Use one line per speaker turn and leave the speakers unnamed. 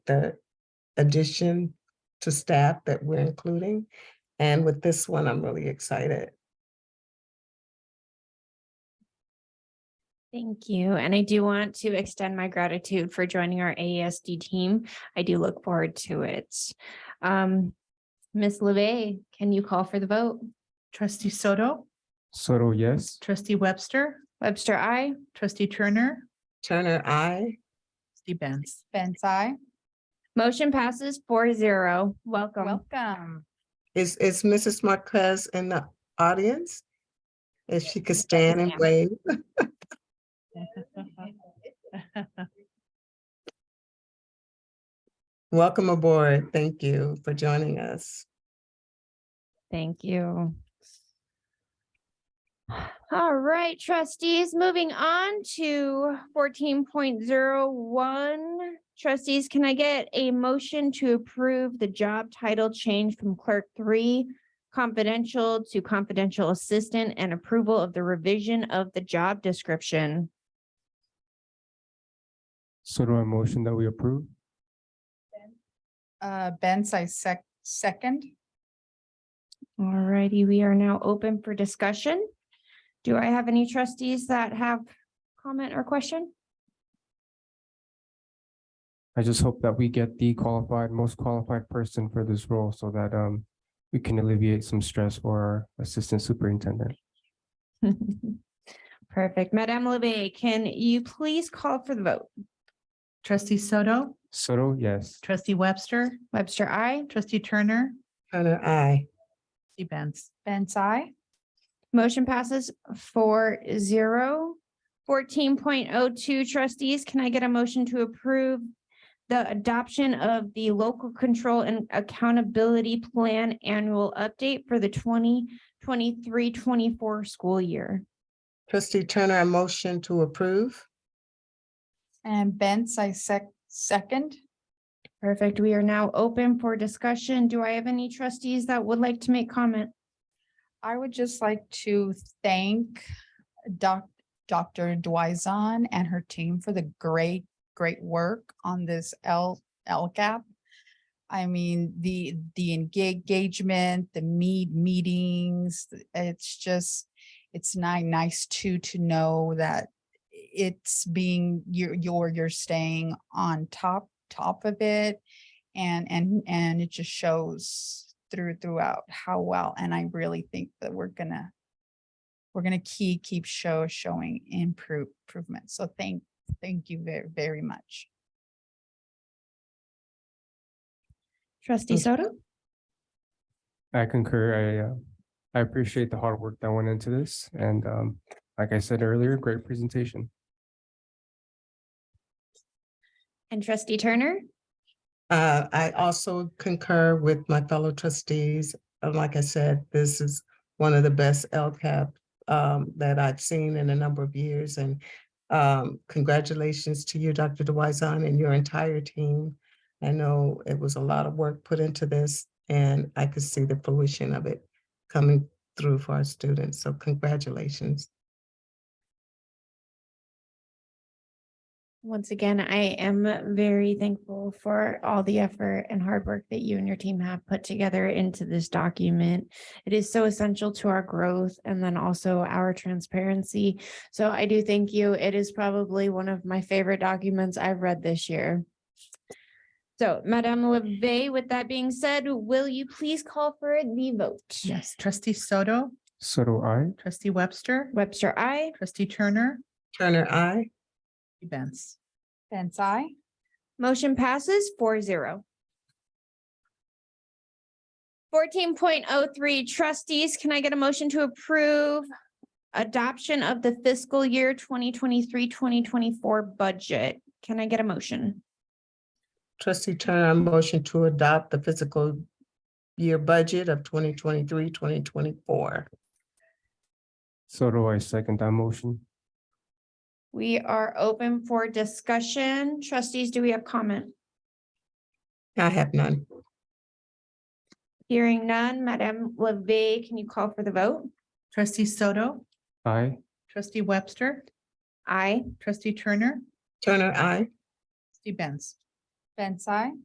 the addition to staff that we're including. And with this one, I'm really excited.
Thank you. And I do want to extend my gratitude for joining our AESD team. I do look forward to it. Um, Ms. LeVey, can you call for the vote?
Trustee Soto,
Soto, yes.
trustee Webster,
Webster, I.
trustee Turner,
Turner, I,
trustee Benz.
Benz, I.
Motion passes four zero. Welcome.
Welcome.
is, is Mrs. Marquez in the audience? If she could stand and
ma'am.
wave. Welcome aboard. Thank you for joining us.
Thank you. All right, trustees, moving on to fourteen point zero one. Trustees, can I get a motion to approve the job title change from clerk three confidential to confidential assistant and approval of the revision of the job description?
Soto, a motion that we approve.
Uh, Benz, I sec- second.
All righty, we are now open for discussion. Do I have any trustees that have comment or question?
I just hope that we get the qualified, most qualified person for this role so that um we can alleviate some stress for our assistant superintendent.
Perfect. Madame Leve, can you please call for the vote?
Trustee Soto,
Soto, yes.
trustee Webster,
Webster, I.
trustee Turner,
Turner, I,
trustee Benz.
Benz, I.
Motion passes four zero. Fourteen point oh two trustees, can I get a motion to approve the adoption of the local control and accountability plan annual update for the 2023-24 school year?
trustee Turner, a motion to approve.
And Benz, I sec- second.
Perfect. We are now open for discussion. Do I have any trustees that would like to make comment?
I would just like to thank Doc, Dr. Dwyzon and her team for the great, great work on this L, LCAP. I mean, the, the enga- engagement, the meet, meetings, it's just, it's ni- nice to, to know that it's being, you're, you're, you're staying on top, top of it. And, and, and it just shows through, throughout how well, and I really think that we're gonna, we're gonna keep, keep show, showing improve, improvement. So thank, thank you very, very much.
Trustee Soto?
I concur. I uh, I appreciate the hard work that went into this and um like I said earlier, great presentation.
And trustee Turner?
Uh, I also concur with my fellow trustees. Uh, Like I said, this is one of the best LCAP um, that I've seen in a number of years. And um, congratulations to you, Dr. Dwyzan, and your entire team. I know it was a lot of work put into this, and I could see the fruition of it coming through for our students. So congratulations.
Once again, I am very thankful for all the effort and hard work that you and your team have put together into this document. It is so essential to our growth and then also our transparency. So I do thank you. It is probably one of my favorite documents I've read this year. So Madame Leve, with that being said, will you please call for the vote?
Yes, trustee Soto,
Soto, I.
trustee Webster,
Webster, I.
trustee Turner,
Turner, I.
trustee Benz.
Benz, I.
Motion passes four zero. Fourteen point oh three trustees, can I get a motion to approve adoption of the fiscal year 2023-2024 budget? Can I get a motion?
Trustee Turner, I motion to adopt the fiscal year budget of 2023, 2024.
Soto, I second that motion.
We are open for discussion. Trustees, do we have comment?
I have none.
Hearing none, Madame Leve, can you call for the vote?
Trustee Soto,
I.
trustee Webster,
Aye.
trustee Turner,
Turner, I.
trustee Benz.
Bensai.